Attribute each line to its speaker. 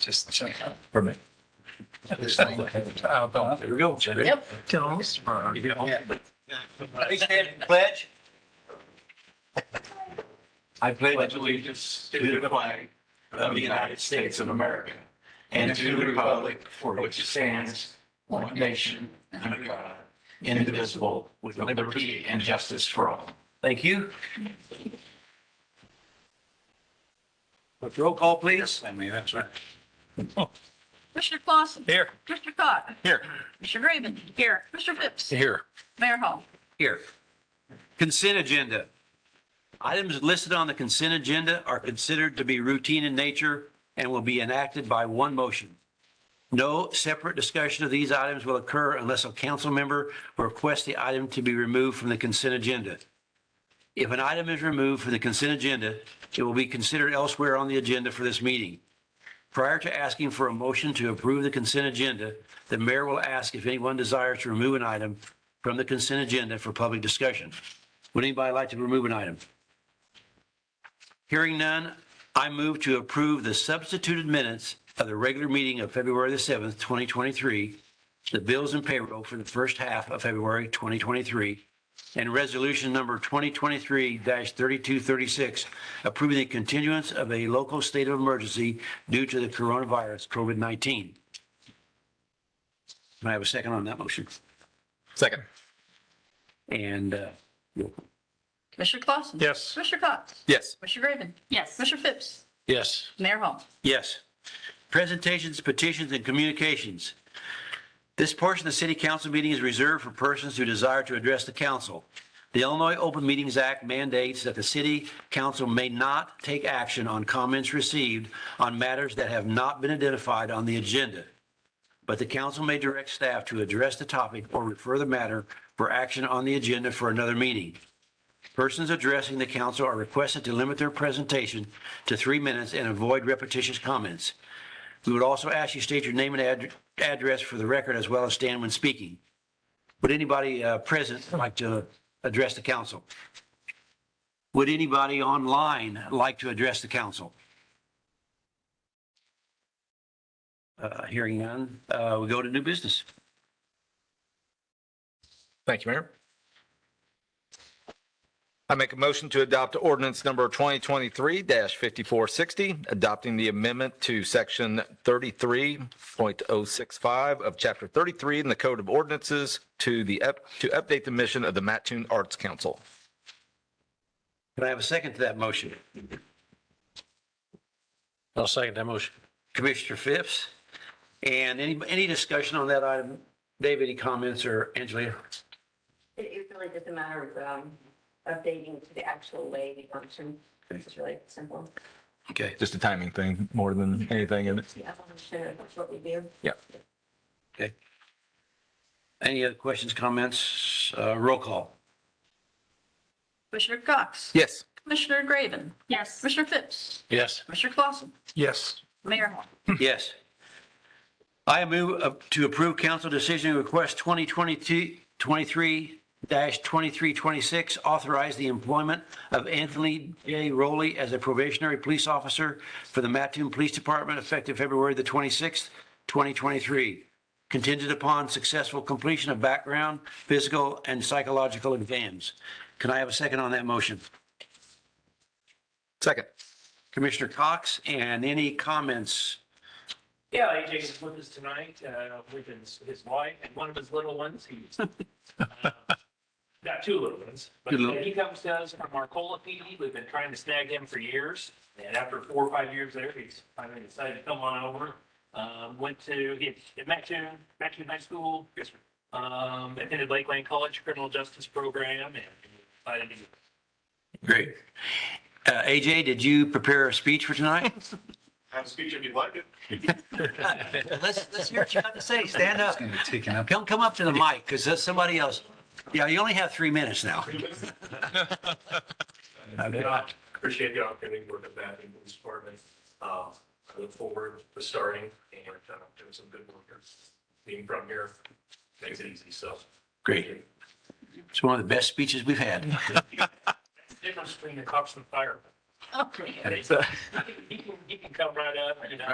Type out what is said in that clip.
Speaker 1: Just check.
Speaker 2: for me.
Speaker 1: Oh, don't. There we go.
Speaker 3: Yep.
Speaker 1: Don't.
Speaker 4: Pledge?
Speaker 2: I pledge
Speaker 4: allegiance to the flag of the United States of America and to the republic for which it stands, one nation, under God, indivisible, with liberty and justice for all.
Speaker 2: Thank you. But Roll call, please.
Speaker 1: I mean, that's right.
Speaker 3: Commissioner Clausen.
Speaker 1: Here.
Speaker 3: Commissioner Cox.
Speaker 1: Here.
Speaker 3: Commissioner Raven. Here. Commissioner Phipps.
Speaker 1: Here.
Speaker 3: Mayor Hall.
Speaker 2: Here. Consent agenda. Items listed on the consent agenda are considered to be routine in nature and will be enacted by one motion. No separate discussion of these items will occur unless a council member requests the item to be removed from the consent agenda. If an item is removed from the consent agenda, it will be considered elsewhere on the agenda for this meeting. Prior to asking for a motion to approve the consent agenda, the mayor will ask if anyone desires to remove an item from the consent agenda for public discussion. Would anybody like to remove an item? Hearing none, I move to approve the substituted minutes of the regular meeting of February the 7th, 2023, the bills and payroll for the first half of February 2023, and resolution number 2023-3236, approving the continuance of a local state of emergency due to the coronavirus COVID-19. Can I have a second on that motion?
Speaker 1: Second.
Speaker 2: And uh,
Speaker 3: Commissioner Clausen.
Speaker 1: Yes.
Speaker 3: Commissioner Cox.
Speaker 1: Yes.
Speaker 3: Commissioner Raven. Yes. Commissioner Phipps.
Speaker 1: Yes.
Speaker 3: Mayor Hall.
Speaker 2: Yes. Presentations, petitions, and communications. This portion of the city council meeting is reserved for persons who desire to address the council. The Illinois Open Meetings Act mandates that the city council may not take action on comments received on matters that have not been identified on the agenda. But the council may direct staff to address the topic or refer the matter for action on the agenda for another meeting. Persons addressing the council are requested to limit their presentation to three minutes and avoid repetitious comments. We would also ask you state your name and ad- address for the record as well as stand when speaking. Would anybody uh, present like to address the council? Would anybody online like to address the council? Uh, Hearing none, uh, we go to new business.
Speaker 5: Thank you, Mayor. I make a motion to adopt ordinance number 2023-5460, adopting the amendment to section 33.065 of chapter 33 in the Code of Ordinances to the, up- to update the mission of the Mattoon Arts Council.
Speaker 2: Can I have a second to that motion?
Speaker 1: I'll second that motion.
Speaker 2: Commissioner Phipps. And any, any discussion on that item? Dave, any comments or Angela?
Speaker 6: It, it really just a matter of, um, updating to the actual way they function. It's really simple.
Speaker 2: Okay,
Speaker 5: Just a timing thing more than anything, isn't it?
Speaker 6: The evolution of what we do.
Speaker 2: any other questions, comments? Uh, Roll call.
Speaker 3: Commissioner Cox.
Speaker 5: Yes.
Speaker 3: Commissioner Graven.
Speaker 6: Yes.
Speaker 3: Commissioner Phipps.
Speaker 1: Yes.
Speaker 3: Commissioner Clausen.
Speaker 1: Yes.
Speaker 3: Mayor Hall.
Speaker 2: Yes. I move up to approve council decision request 2022-23-2326, authorize the employment of Anthony J. Rowley as a probationary police officer for the Mattoon Police Department effective February the 26th, 2023, contingent upon successful completion of background, physical, and psychological exams. Can I have a second on that motion?
Speaker 5: Second.
Speaker 2: Commissioner Cox, and any comments?
Speaker 7: Yeah, AJ's with us tonight, uh, with his, his wife and one of his little ones. He's uh, got two little ones, but
Speaker 2: Two little-
Speaker 7: he comes to us from Marcola PD. We've been trying to snag him for years. And after four or five years there, he's finally decided to come on over. Um, went to, he at Mattoon, Mattoon High School. Um, attended Lakeland College Criminal Justice Program and decided to
Speaker 2: Great. Uh, AJ, did you prepare a speech for tonight?
Speaker 8: Have a speech if you'd like it.
Speaker 2: Let's, let's hear what you have to say. Stand up.
Speaker 1: Gonna take it up.
Speaker 2: Come, come up to the mic because that's somebody else. Yeah, you only have three minutes now.
Speaker 8: I Appreciate the opportunity to work at that in this department. Uh, I look forward to starting and uh, doing some good work here. Being from here makes it easy, so.
Speaker 2: Great. It's one of the best speeches we've had.
Speaker 7: difference between the cops and fire.
Speaker 3: Okay.
Speaker 7: He can, he can come right up and, uh, you know,